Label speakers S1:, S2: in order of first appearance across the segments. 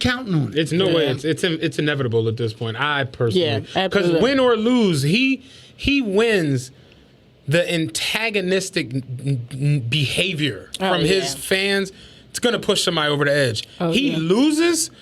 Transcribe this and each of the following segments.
S1: counting on it.
S2: It's no way.
S3: Yeah.
S2: It's, it's it's inevitable at this point. I personally,
S3: Yeah,
S2: because
S3: absolutely.
S2: win or lose, he he wins the antagonistic n- n- behavior
S3: Oh,
S2: from his
S3: yeah.
S2: fans. It's gonna push somebody over the edge.
S3: Oh,
S2: he
S3: yeah.
S2: loses,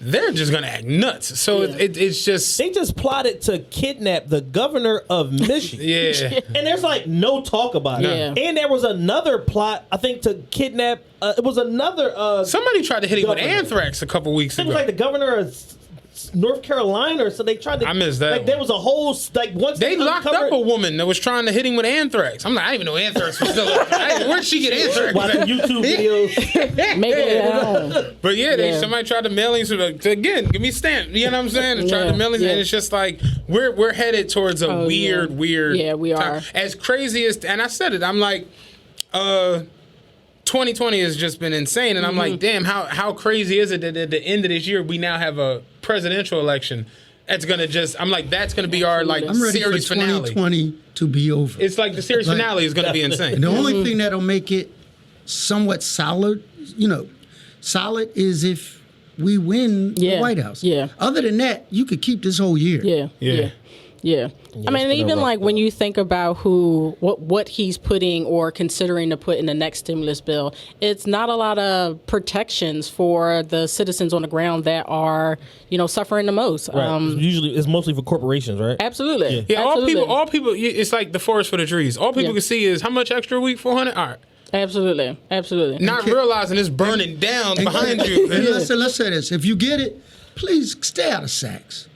S2: they're just gonna act nuts. So it,
S3: Yeah.
S2: it, it's just
S4: They just plotted to kidnap the governor of Michigan.
S2: yeah.
S4: And there's like no talk about it.
S3: Yeah.
S4: And there was another plot, I think, to kidnap. Uh, it was another. Uh,
S2: Somebody tried to hit him with
S4: Governor.
S2: anthrax a couple weeks
S4: it
S2: ago.
S4: was like the governor of S- S- North Carolina, so they tried to.
S2: I missed that
S4: Like
S2: one.
S4: there was a whole s- like once
S2: they locked up
S4: uncovered-
S2: a woman that was trying to hit him with anthrax. I'm like, I didn't even know anthrax was still. up. I didn't- Where'd she get anthrax?
S4: watching
S2: at?
S4: YouTube videos.
S3: Maybe they don't.
S2: But yeah, they,
S3: Yeah.
S2: somebody tried to mail in. So like, again, give me a stamp. You know what I'm saying? They tried to
S3: Yeah,
S2: mail in,
S3: yeah.
S2: and it's just like we're we're headed towards a
S3: Oh, yeah.
S2: weird, weird.
S3: Yeah, we are.
S2: As crazy as, and I said it. I'm like, uh. 2020 has just been insane, and I'm like,
S3: Mm-hmm.
S2: damn, how how crazy is it that at the end of this year we now have a presidential election? That's gonna just, I'm like, that's gonna be our like
S3: Absolutely.
S1: I'm ready for
S2: series finale.
S1: 2020 to be over.
S2: It's like Mm-hmm. the series
S1: Like-
S2: finale is gonna be insane.
S1: And the only thing that'll make it somewhat solid, you know, solid is if we win the
S3: Yeah,
S1: White House.
S3: yeah.
S1: Other than that, you could keep this whole year.
S3: Yeah. Yeah. Yeah. I mean,
S2: been a
S3: even
S2: rough
S3: like when you think about who, what, what he's putting or considering to put in the next stimulus bill, it's not a lot of protections for the citizens on the ground that are, you know, suffering the most. Um,
S4: Usually, it's mostly for corporations, right?
S3: absolutely.
S2: Yeah, all
S3: Absolutely.
S2: people, all people. y- It's like the forest for the trees. All people
S3: Yeah.
S2: can see is how much extra a week, four hundred. All right,
S3: absolutely. Absolutely.
S2: not realizing it's burning down behind you.
S1: And let's, say, let's say this: if you get it, please stay out of Saks.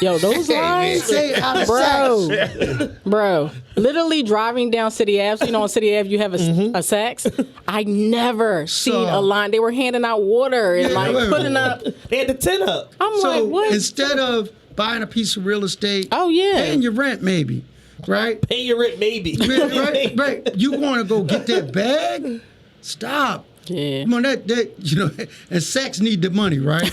S3: Yo, those lines.
S1: Stay out of
S3: Bro,
S1: Saks.
S3: bro, literally driving down City Ave. You know, on City Ave, you have a, a Saks. I never seen a line. They were handing out water and
S1: Yeah,
S3: like
S1: wait, wait,
S3: putting
S1: wait.
S3: up.
S4: They had the tent up.
S3: I'm
S1: So
S3: like, what?
S1: instead of buying a piece of real estate,
S3: Oh, yeah.
S1: paying your rent maybe, right?
S4: Pay your rent, maybe.
S1: right, right, right. You want to go get that bag? Stop.
S3: Yeah.
S1: Come on, that, that you know, and Saks need the money, right?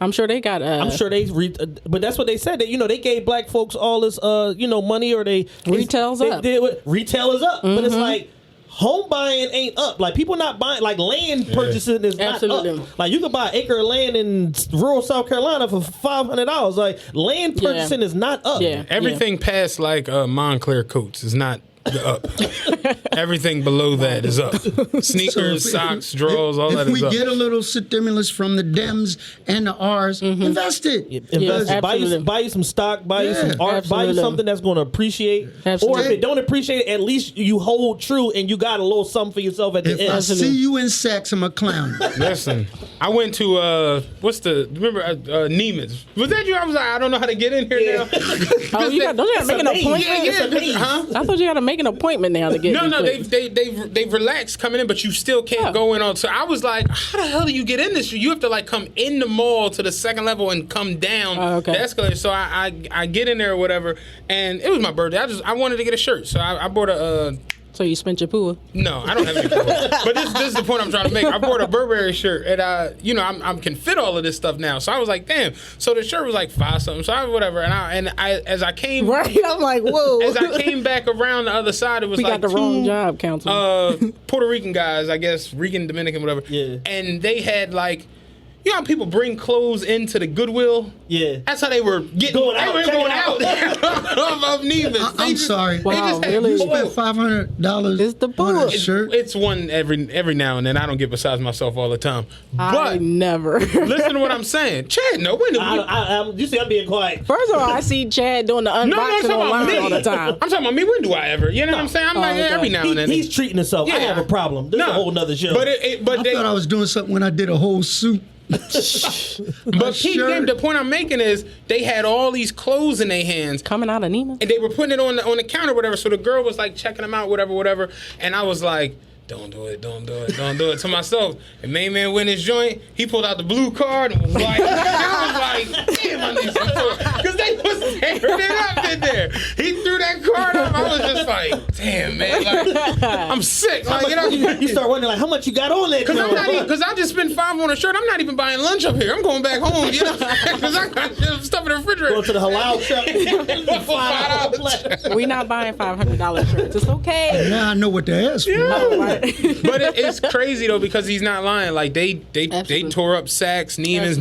S3: I'm sure they got. Uh,
S4: I'm sure they, re- uh, but that's what they said. That you know they gave black folks all this, uh, you know, money or they
S3: Retail's
S4: they,
S3: up. Mm-hmm.
S4: They, what- retail is up, but it's like home buying ain't up. Like people not buying, like land purchasing is
S3: Absolutely.
S4: not up. Like you can buy an acre of land in s- rural South Carolina for five hundred dollars. Like land
S3: Yeah.
S4: purchasing is not up.
S3: Yeah.
S2: Everything past like uh, Montclair coats is not the up. Everything below that is up. Sneakers,
S1: So if-
S2: socks, drawers, all
S1: if
S2: that
S1: we
S2: is up.
S1: get a little stimulus from the Dems and the R's, invest it.
S4: Invest,
S3: Yeah,
S4: buy, you,
S3: absolutely.
S4: buy you some stock, buy you
S1: Yeah.
S4: some art, buy you
S3: Absolutely.
S4: something that's going to appreciate. Or if
S3: Absolutely.
S4: it don't appreciate, at least you hold true and you got a little something for yourself at the
S1: If
S4: end.
S1: I
S3: Absolutely.
S1: see you in Saks, I'm a clown.
S2: Listen, I went to uh, what's the remember uh, uh, Neiman's? Was that you? I was like, I don't know how to get in here now.
S3: Oh, you got, don't you got to make an
S4: amazing.
S3: appointment?
S2: yeah,
S4: It's amazing.
S2: yeah, huh?
S3: I thought you got to make an appointment now to get.
S2: No,
S3: in
S2: no,
S3: quick.
S2: they've they they've they've relaxed coming in, but you still can't
S3: Yeah.
S2: go in on. So I was like, how the hell do you get in this? You have to like come in the mall to the second level and come down
S3: Oh, okay.
S2: the escalator. So I, I I get in there or whatever, and it was my birthday. I just I wanted to get a shirt, so I, I bought a. Uh,
S3: So you spent your pool.
S2: no, I don't have any. but this, this is the point I'm trying to make. I bought a Burberry shirt, and I, you know, I'm, I'm can fit all of this stuff now. So I was like, damn. So the shirt was like five something. So I whatever, and I and I as I came
S3: Right. I'm like, whoa.
S2: as I came back around the other side, it was
S3: we
S2: like
S3: got the
S2: two,
S3: wrong job, counselor.
S2: uh, Puerto Rican guys, I guess, Rican, Dominican, whatever.
S4: Yeah.
S2: And they had like, you know how people bring clothes into the Goodwill?
S4: Yeah.
S2: That's how they were getting
S4: Going
S2: they
S4: out,
S2: were
S4: checking
S2: going out
S4: out.
S2: of, of Nevis.
S1: I,
S2: They
S1: I'm
S2: just-
S1: sorry.
S2: they just
S3: Wow,
S2: had-
S3: really?
S1: You
S3: Whoa.
S1: spent five hundred dollars
S3: It's the
S1: on a
S3: bull.
S1: shirt.
S2: It's one every every now and then. I don't get besides myself all the time.
S3: I
S2: But
S3: never.
S2: listen to what I'm saying, Chad. No, when
S4: I, I, I'm, you see, I'm being quiet.
S3: First of all, I see Chad doing the unboxing
S2: no, no, I'm talking about
S3: online
S2: me.
S3: all the time.
S2: I'm talking about me. When do I ever? You know what I'm saying? I'm
S3: Oh,
S2: like yeah,
S3: okay.
S2: every now
S4: He-
S2: and then.
S4: he's treating himself. I have a problem. This is a whole nother show.
S2: But it, it but
S1: I
S2: they,
S1: thought I was doing something when I did a whole suit.
S2: But peep
S1: shirt.
S2: game, the point I'm making is they had all these clothes in their hands
S3: Coming out of Nima.
S2: and they were putting it on the, on the counter, whatever. So the girl was like checking them out, whatever, whatever. And I was like, don't do it, don't do it, don't do it to myself. And main man went his joint. He pulled out the blue card and was like, I was like, damn, I need some Because they was, teared it up in there. He threw that card up. I was just like, damn, man. Like, I'm sick. Like, you know,
S4: you, you start wondering like how much you got on that.
S2: Cause I'm not
S4: joint.
S2: even, cause I just spent five on a shirt. I'm not even buying lunch up here. I'm going back home, you know, cause I got stuff in the refrigerator.
S4: Go to the halal
S2: Five
S4: shop. Five
S2: dollars.
S4: dollars.
S3: we not buying five hundred dollar shirts. It's okay.
S1: Now I know what to ask for.
S3: Right.
S2: but it, it's crazy though because he's not lying. Like they they they
S3: Absolutely.
S2: tore up Sacks, Neiman's